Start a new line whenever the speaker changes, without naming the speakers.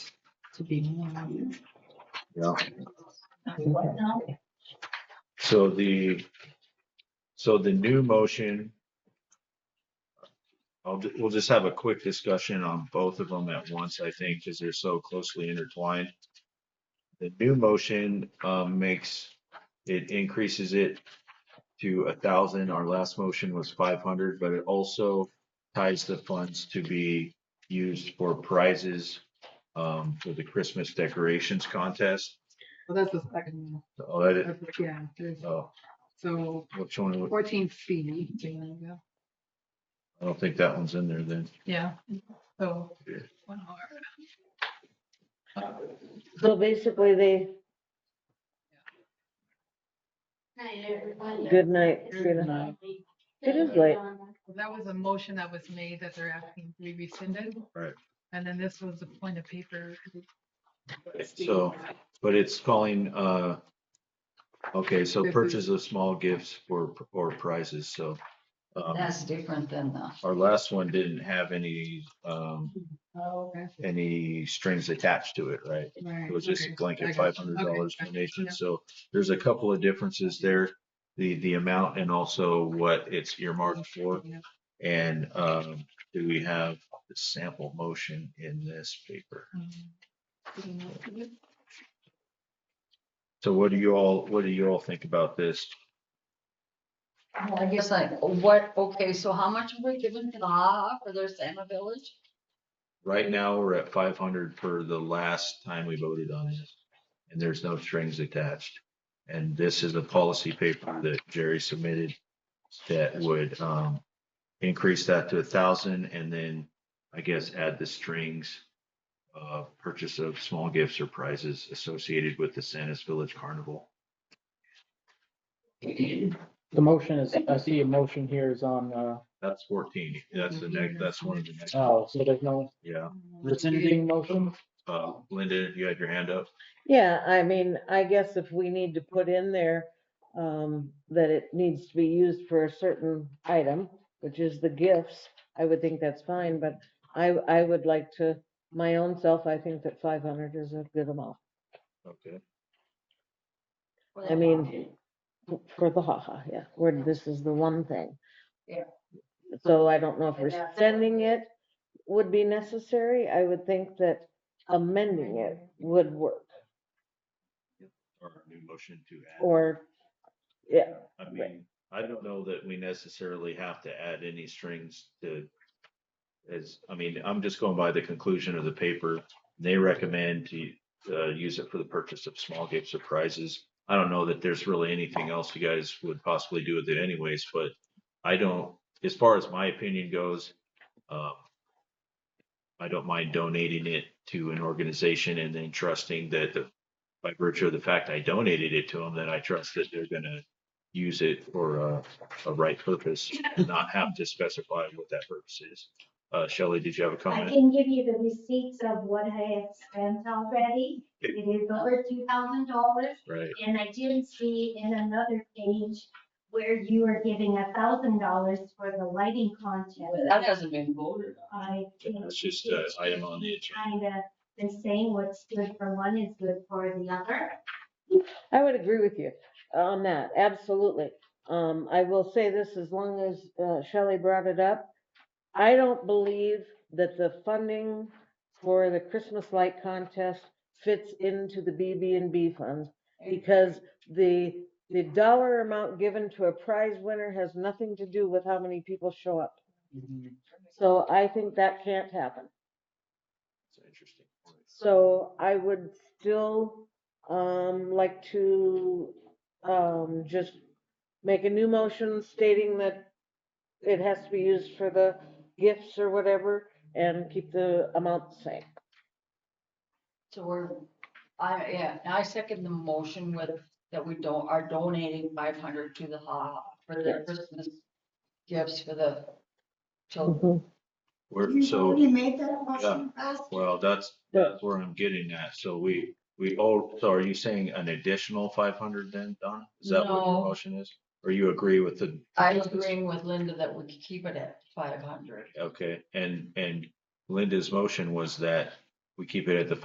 to be more.
Yeah.
What now?
So the, so the new motion. I'll, ju- we'll just have a quick discussion on both of them at once, I think, because they're so closely intertwined. The new motion, um, makes, it increases it to a thousand. Our last motion was five hundred, but it also ties the funds to be used for prizes, um, for the Christmas decorations contest.
Well, that's the second, one.
Oh, that is,
That's- yeah, there's-
oh,
so
which one? was-
fourteen C. there you go.
I don't think that one's in there then.
Yeah, so.
Yeah.
one hour.
So basically, they,
Night, everybody.
good night,
Good
Sheila.
night.
It is late.
That was a motion that was made that they're asking to be rescinded.
Right.
And then this was the point of paper.
So, but it's calling, uh, okay, so
This is-
purchase of small gifts for, or prizes, so. um,
That's different than the,
Our last one didn't have any, um,
Oh, okay.
any strings attached to it, right? It
Right,
was just a
okay. I
blanket five
got you.
hundred
Okay,
dollars
gotcha.
donation,
Yeah.
so there's a couple of differences there. The, the amount and also what it's earmarked for.
Yeah.
And, um, do we have the sample motion in this paper?
Um,
So what do you all, what do you all think about this?
Well, I guess like, what, okay, so how much are we giving to the HaHa for their Santa Village?
Right now, we're at five hundred for the last time we voted on this, and there's no strings attached. And this is a policy paper that Jerry submitted that would um increase that to a thousand and then I guess add the strings of purchase of small gifts or prizes associated with the Santa's Village Carnival.
The motion is, I see a motion here is on, uh,
That's fourteen. That's the next, that's one of the next,
oh, so there's no
yeah.
rescinding motion?
Uh, Linda, you had your hand up?
Yeah, I mean, I guess if we need to put in there, um, that it needs to be used for a certain item, which is the gifts, I would think that's fine, but I, I would like to, my own self, I think that five hundred is a good amount.
Okay.
I mean, for the haha, yeah, where this is the one thing.
Yeah.
So I don't know if
And that's-
rescinding it would be necessary. I would think that amending it would work,
Or new motion to add.
or, yeah,
I
Right.
mean, I don't know that we necessarily have to add any strings to. As, I mean, I'm just going by the conclusion of the paper. They recommend to uh use it for the purchase of small gifts or prizes. I don't know that there's really anything else you guys would possibly do with it anyways, but I don't, as far as my opinion goes, um. I don't mind donating it to an organization and then trusting that the, by virtue of the fact I donated it to them, that I trust that they're gonna use it for a, a right purpose and not have to specify what that purpose is. Uh, Shelley, did you have a
I
comment?
can give you the receipts of what I have spent already. It is over two thousand dollars.
Right,
And I did see in another page where you are giving a thousand dollars for the lighting
Well,
contest.
That hasn't been voted on.
I think
that's just uh, an item on the agenda.
kind of the same, what's good for one is good for the other.
I would agree with you on that, absolutely. Um, I will say this, as long as uh, Shelley brought it up, I don't believe that the funding for the Christmas light contest fits into the BB and B funds because the, the dollar amount given to a prize winner has nothing to do with how many people show up. So I think that can't happen.
It's interesting.
So I would still, um, like to, um, just make a new motion stating that it has to be used for the gifts or whatever and keep the amount the same.
So we're, I, yeah, I second the motion with, that we don't, are donating five hundred to the HaHa for their
Yes.
Christmas gifts for the children.
We're, so. You made that motion Well, that's, that's where I'm getting at. So we, we, oh, so are you saying an additional five hundred then, Donna? Is that what your
No.
motion is? Or you agree with the?
I'm agreeing with Linda that we could keep it at five hundred.
Okay, and, and Linda's motion was that we keep it at the